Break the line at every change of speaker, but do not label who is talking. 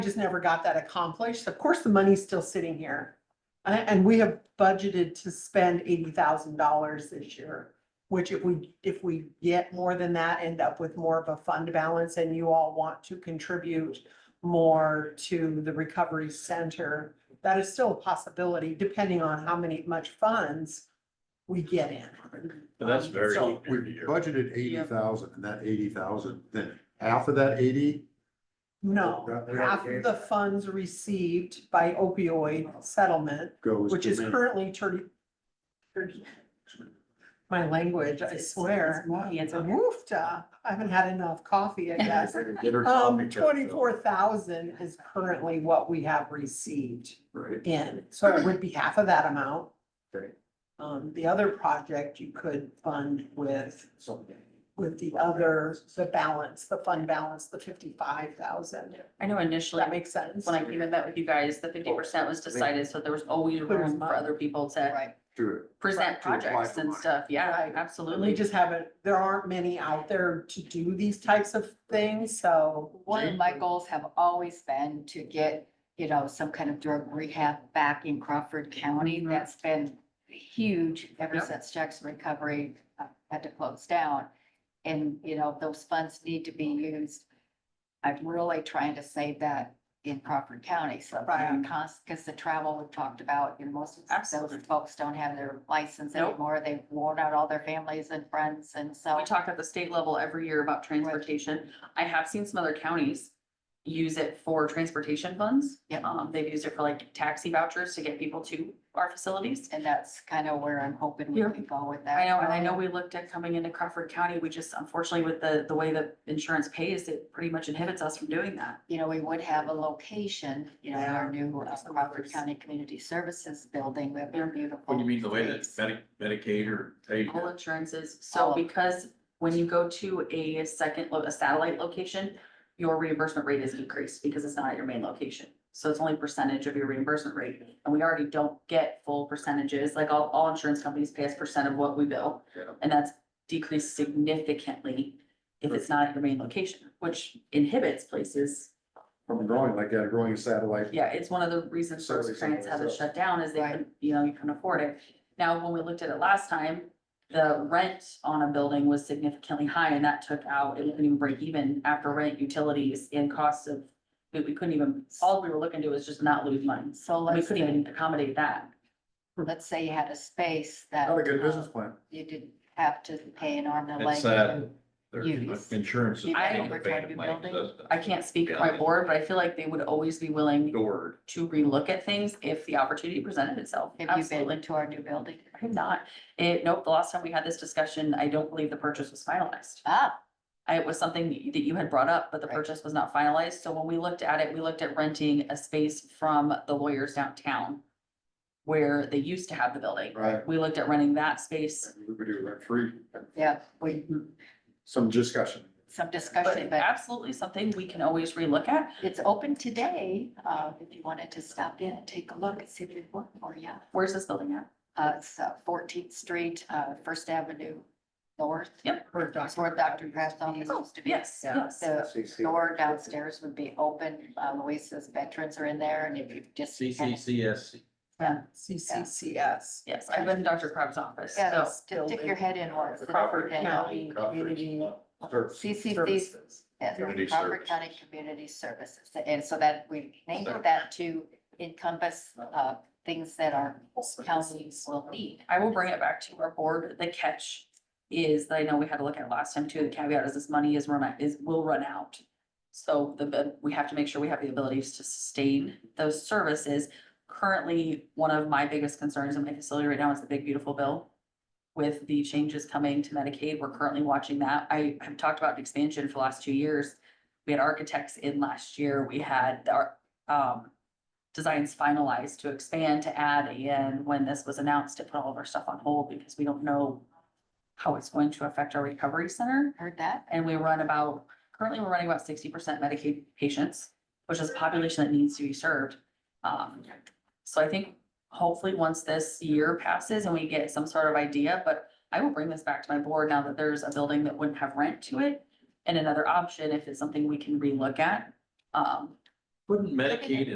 just never got that accomplished. Of course, the money's still sitting here. A- And, we have budgeted to spend eighty thousand dollars this year, which if we, if we get more than that, end up with more of a fund balance and you all want to contribute more to the recovery center, that is still a possibility, depending on how many, much funds we get in.
But that's
Um,
very-
so-
So we budgeted eighty thousand and that eighty thousand, then half of that eighty,
No, half of the funds received by opioid settlement,
goes.
which
to
is
me.
currently thirty. 30 My language, I swear.
It's okay.
Woofta, I haven't had enough coffee, I guess.
Get her
Um,
copy, Jeff.
twenty-four thousand is currently what we have received
Right.
in, so it would be half of that amount.
Great.
Um, the other project you could fund with, with the other, the balance, the fund balance, the fifty-five thousand.
I know
Does
initially,
that make sense?
when I came and met with you guys, the fifty percent was decided, so there was always
There was
room for
money.
other people to
Right.
True.
present
To apply for
projects and
money.
stuff. Yeah,
Right. And we
absolutely.
just haven't, there aren't many out there to do these types of things, so.
One of my goals have always been to get, you know, some kind of drug rehab back in Crawford County. That's been huge ever
Yep.
since Jackson Recovery uh, had to close down. And, you know, those funds need to be used. I'm really trying to save that in Crawford County, so.
Right.
Because the travel we talked about, you know, most of those
Absolutely.
folks don't have their license
Nope.
anymore. They've worn out all their families and friends and so.
We talk at the state level every year about transportation. I have seen some other counties use it for transportation funds.
Yep.
Um, they've used it for like taxi vouchers to get people to our facilities.
And that's kind of where I'm hoping we
Yeah.
can go with that.
I know, and I know we looked at coming into Crawford County. We just unfortunately with the, the way the insurance pays, it pretty much inhibits us from doing that.
You know, we would have a location, you know, in our new uh,
Yeah.
Crawford County Community Services Building, we have a beautiful.
What do you mean, the way that
space.
Medi- Medicaid or paid?
All insurances, so
All of them.
because when you go to a second, lo- a satellite location, your reimbursement rate is increased because it's not at your main location. So it's only percentage of your reimbursement rate, and we already don't get full percentages, like all, all insurance companies pay us percent of what we bill.
Yeah.
And that's decreased significantly if it's not at your main location, which inhibits places.
From growing like that, growing a satellite.
Yeah, it's one of the reasons
So
those
it's
grants have it
something
shut down is they,
Right.
couldn't- you know, you couldn't afford it. Now, when we looked at it last time, the rent on a building was significantly high and that took out, it couldn't even break even after rent, utilities and costs of. We, we couldn't even, all we were looking to was just not lose money.
So
We
let's
couldn't
say,
even accommodate that.
let's say you had a space that.
Not a good
uh,
business plan.
You didn't have to pay an arm and a leg.
It's sad.
and-
Their
Use.
insurance. is
I-
paying the
We're trying to
band
be
money,
building.
doesn't it?
I can't speak for my board, but I feel like they would always be willing
Adored.
to relook at things if the opportunity presented itself.
Have you been
Absolutely.
into our new building?
I'm not, it, nope, the last time we had this discussion, I don't believe the purchase was finalized.
Ah,
I- It was something that you- that you had brought up, but the
Right.
purchase was not finalized, so when we looked at it, we looked at renting a space from the lawyers downtown. Where they used to have the building,
Right.
we looked at renting that space,
We would do rent free.
yeah, we,
Some discussion.
some
but
discussion, but
absolutely something we can always relook at.
it's open today. Uh, if you wanted to stop in and take a look and see if it worked for you.
Where's this building at?
Uh, it's Fourteenth Street, uh, First Avenue North.
Yep. Oh,
Or
That's where Dr. Kraft's office used to be.
Yes,
Yeah.
yes.
The door downstairs would be open. Uh, Louisa's veterans are in there and if you just.
CCCSC.
CCCS.
Yes, I've been in Dr. Crab's office,
Yeah,
so
just stick your head in once.
Crawford
and-
County.
Community.
CCC,
Services.
yeah,
Community
Crawford
Services.
County Community Services. And so that we named that to encompass, uh, things that our counties will need.
I will bring it back to our board. The catch is that I know we had to look at last time too. The caveat is this money is run, is, will run out. So the- the, we have to make sure we have the abilities to sustain those services. Currently, one of my biggest concerns in my facility right now is the big beautiful bill. With the changes coming to Medicaid, we're currently watching that. I have talked about expansion for the last two years. We had architects in last year. We had our, um, designs finalized to expand, to add, and when this was announced, it put all of our stuff on hold because we don't know how it's going to affect our recovery center.
Heard that?
And we run about, currently we're running about sixty percent Medicaid patients, which is a population that needs to be served. Um, so I think hopefully once this year passes and we get some sort of idea, but I will bring this back to my board now that there's a building that wouldn't have rent to it. And another option, if it's something we can relook at, um,
Wouldn't Medicaid